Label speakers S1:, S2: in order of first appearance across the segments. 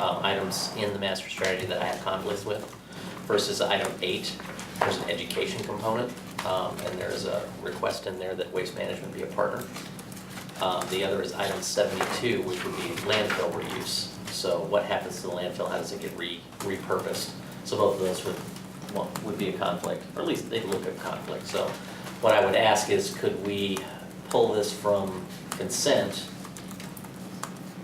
S1: um, items in the master strategy that I have conflicts with versus item eight, there's an education component, um, and there's a request in there that waste management be a partner. Um, the other is item seventy-two, which would be landfill reuse. So what happens to the landfill, how does it get re, repurposed? So both of those would, well, would be a conflict, or at least they look at conflict. So what I would ask is, could we pull this from consent?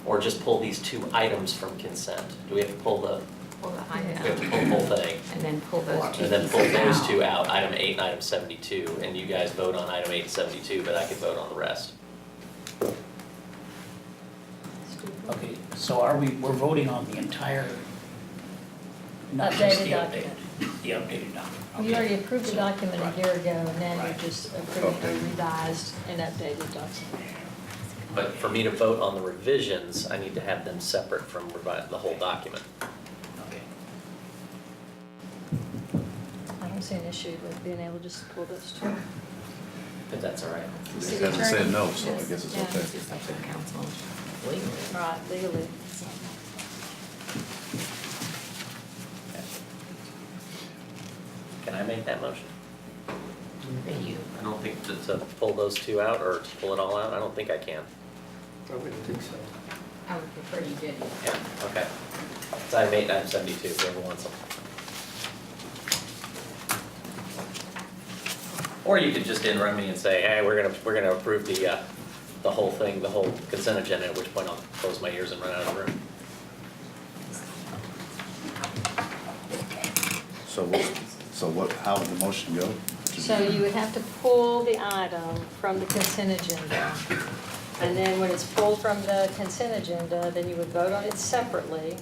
S1: Or just pull these two items from consent? Do we have to pull the,
S2: Pull the high
S1: we have to
S2: down
S1: pull the whole thing?
S2: and then pull those two
S1: And then pull
S2: pieces
S1: those two out, item eight and item seventy-two, and you guys vote on item eight and seventy-two, but I could vote on the rest.
S3: Okay, so are we, we're voting on the entire? not just
S4: Updated
S3: the
S4: document.
S3: updated- The updated document, okay.
S4: You already approved the document a
S3: Right.
S4: year ago, and now you're
S3: Right.
S4: just approving the revised and updated document.
S1: But for me to vote on the revisions, I need to have them separate from revi- the whole document.
S3: Okay.
S4: I don't see an issue with being able to just pull those two.
S1: If that's all right.
S2: City
S5: It hasn't said
S2: attorney.
S5: no, so I guess it's
S2: Yeah,
S5: okay.
S2: this is up to the council.
S4: Right, legally.
S1: Can I make that motion?
S2: Thank you.
S1: I don't think to, to pull those two out or to pull it all out, I don't think I can.
S6: I wouldn't think so.
S2: I would prefer you did it.
S1: Yeah, okay. So I made item seventy-two, whoever wants them. Or you could just interrupt me and say, hey, we're gonna, we're gonna approve the, uh, the whole thing, the whole consent agenda, at which point I'll close my ears and run out of the room.
S5: So what, so what, how would the motion go?
S4: So you would have to pull the item from the consent agenda. And then when it's pulled from the consent agenda, then you would vote on it separately.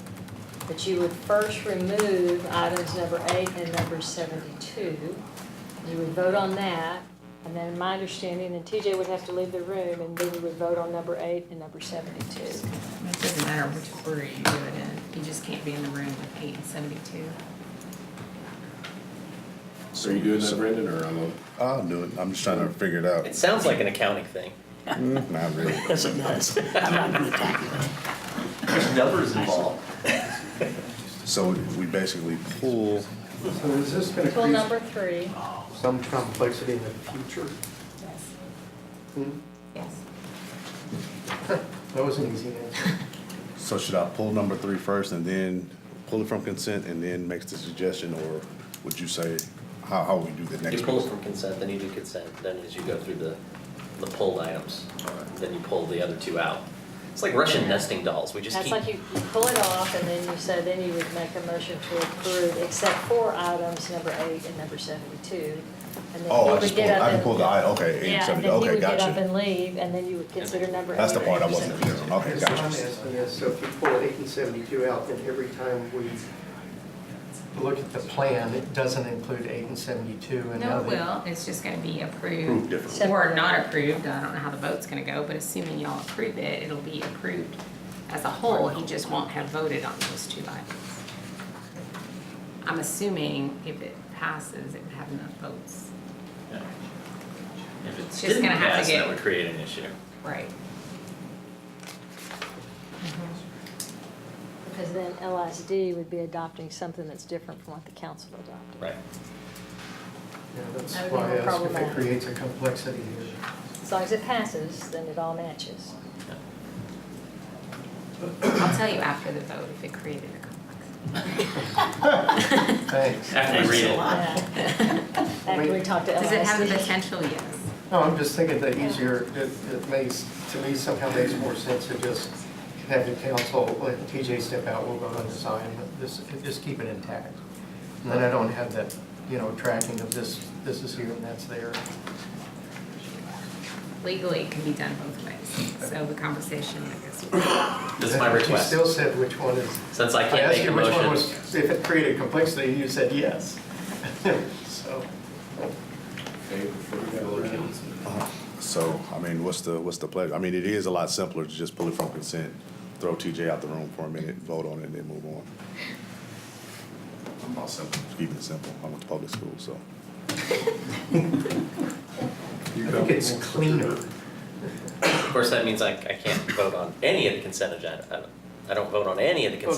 S4: But you would first remove items number eight and number seventy-two. You would vote on that, and then my understanding, and TJ would have to leave the room, and then you would vote on number eight and number seventy-two.
S2: It doesn't matter which order you do it in, you just can't be in the room with eight and seventy-two.
S7: Are you doing that, Brendan, or I'm on?
S5: I'll do it, I'm just trying to figure it out.
S1: It sounds like an accounting thing.
S5: Mm, Not really.
S3: Yes, it does. I'm not gonna tackle it.
S1: There's numbers involved.
S5: So we basically pull,
S6: So is this gonna
S4: Pull number
S6: create
S4: three.
S6: some complexity in the future?
S2: Yes.
S6: Hmm?
S2: Yes.
S6: That was an easy answer.
S5: so should I pull number three first and then pull it from consent and then makes the suggestion, or would you say, how, how would we do the next?
S1: You pull
S5: one?
S1: from consent, then you do consent, then as you go through the, the pulled items, uh, then you pull the other two out. It's like Russian nesting dolls, we just
S4: That's
S1: keep.
S4: like you you pull it off, and then you say, then you would make a motion to approve, except for items number eight and number seventy-two. and then he
S5: Oh, I
S4: would
S5: just pulled,
S4: get up
S5: I can
S4: and-
S5: pull the, I, okay, eight,
S4: Yeah, and
S5: seven,
S4: then he
S5: okay,
S4: would get up
S5: gotcha.
S4: and leave, and then you would consider number eight.
S5: That's the
S4: or
S5: part I
S4: number
S5: wasn't clear on,
S4: 72.
S5: okay,
S6: So I'm
S5: gotcha.
S6: asking this, so if you pull eight and seventy-two out, then every time we look at the plan, it doesn't include eight and seventy-two and
S2: No,
S6: now
S2: it
S6: they-
S2: will, it's just gonna be
S5: Approved
S2: approved
S5: differently.
S2: or not approved, I don't know how the vote's gonna go, but assuming y'all approve it, it'll be approved as a whole, he just won't have voted on those two items. I'm assuming if it passes, it would have enough votes,
S1: If
S2: It's
S1: it's
S2: just
S1: didn't
S2: gonna have to
S1: pass, that
S2: get-
S1: would create an issue.
S2: right? Mm-hmm.
S4: Because then LSD would be adopting something that's different from what the council adopted.
S1: Right.
S6: Yeah, that's
S4: That would be
S6: why
S4: more
S6: I asked if it
S4: problematic.
S6: creates a complexity here.
S4: As long as it passes, then it all matches.
S2: I'll tell you after the vote if it created a complex.
S6: Thanks.
S1: After you read it.
S4: Yeah. After we
S6: Wait.
S4: talk to LSD.
S2: Does it have the potential? Yes.
S6: No, I'm just thinking that easier, it, it makes, to me somehow makes more sense to just have the council, let TJ step out, we'll vote on this item, but this, just keep it intact. And then I don't have that, you know, tracking of this, this is here and that's there.
S2: Legally, it can be done both ways, so the conversation, I guess.
S1: This is my
S6: You
S1: request.
S6: still said which one is,
S1: Since I
S6: I
S1: can't
S6: asked
S1: make a
S6: you which one
S1: motion,
S6: was, if it created complexity, you said yes. So,
S5: So, I mean, what's the, what's the pleasure? I mean, it is a lot simpler to just pull it from consent, throw TJ out the room for a minute, vote on it, and then move on. I'm all simple, keep it simple. I went to public school, so.
S6: I think it's cleaner.
S1: of course, that means I, I can't vote on any of the consent agenda. I don't- I don't vote on any of the consent